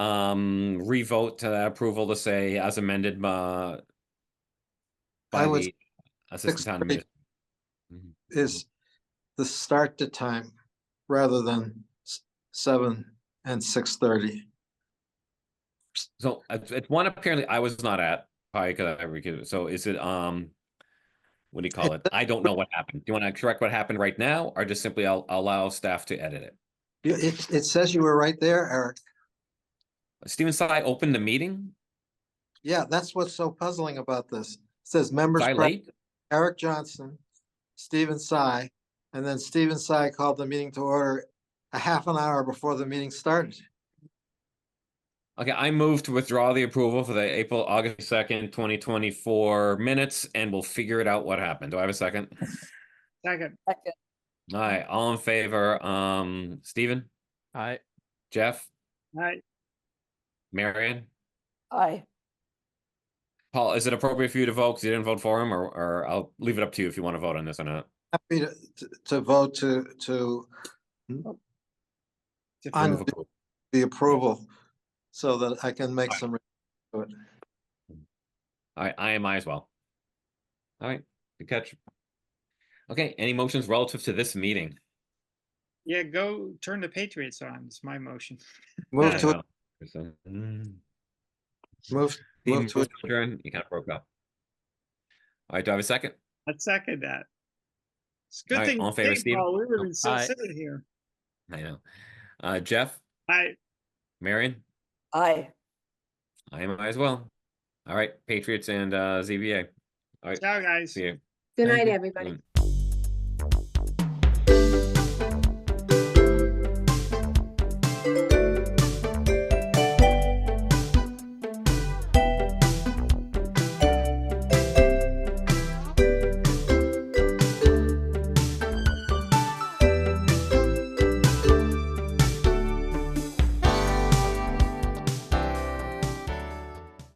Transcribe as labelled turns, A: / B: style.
A: um, revote to approval to say as amended, uh, by
B: I would,
A: the assistant town
B: expect-
A: admin-
B: is the start to time rather than s- seven and six thirty.
A: So it's, it's one apparently I was not at, probably because I recused. So is it, um, what do you call it? I don't know what happened. Do you want to correct what happened right now or just simply al- allow staff to edit it?
B: You- It, it says you were right there, Eric.
A: Steven Sai opened the meeting?
B: Yeah, that's what's so puzzling about this. It Says members,
A: Was I
B: present,
A: late?
B: Eric Johnson, Stephen Sy, and then Stephen Sy called the meeting to order a half an hour before the meeting started.
A: Okay, I move to withdraw the approval for the April, August second, twenty twenty-four minutes, and we'll figure it out what happened. Do I have a second?
C: Second.
D: Second,
A: All right, all in favor, um, Steven,
C: Aye.
A: Jeff,
C: Aye.
A: Marion?
D: aye.
A: Paul, is it appropriate for you to vote because you didn't vote for him, or, or I'll leave it up to you if you want to vote on this or not?
B: Happy to, to- to vote to, to
A: Remove
B: undo
A: approval.
B: the approval so that I can make some.
A: All right, I am I as well. All right, good catch. Okay, any motions relative to this meeting?
C: Yeah, go turn the Patriots on. It's my motion.
B: Move
A: I
B: to,
A: know. It's, uh, mm.
B: move,
A: Steve
B: move to,
A: moves to adjourn, You kind of broke up. All right, do I have a second?
C: I second that. It's a good
A: Alright,
C: thing.
A: all in
C: you
A: favor,
C: came,
A: Steve?
C: Paul. We would have been so
E: Aye.
C: sitting here.
A: I know. Uh, Jeff,
C: I,
A: Marion,
D: Aye.
A: I am I as well. All right, Patriots and, uh, ZBA. All right,
C: ciao, guys.
A: see you.
F: Good
A: Thank
F: night,
A: you.
F: everybody.
A: Um,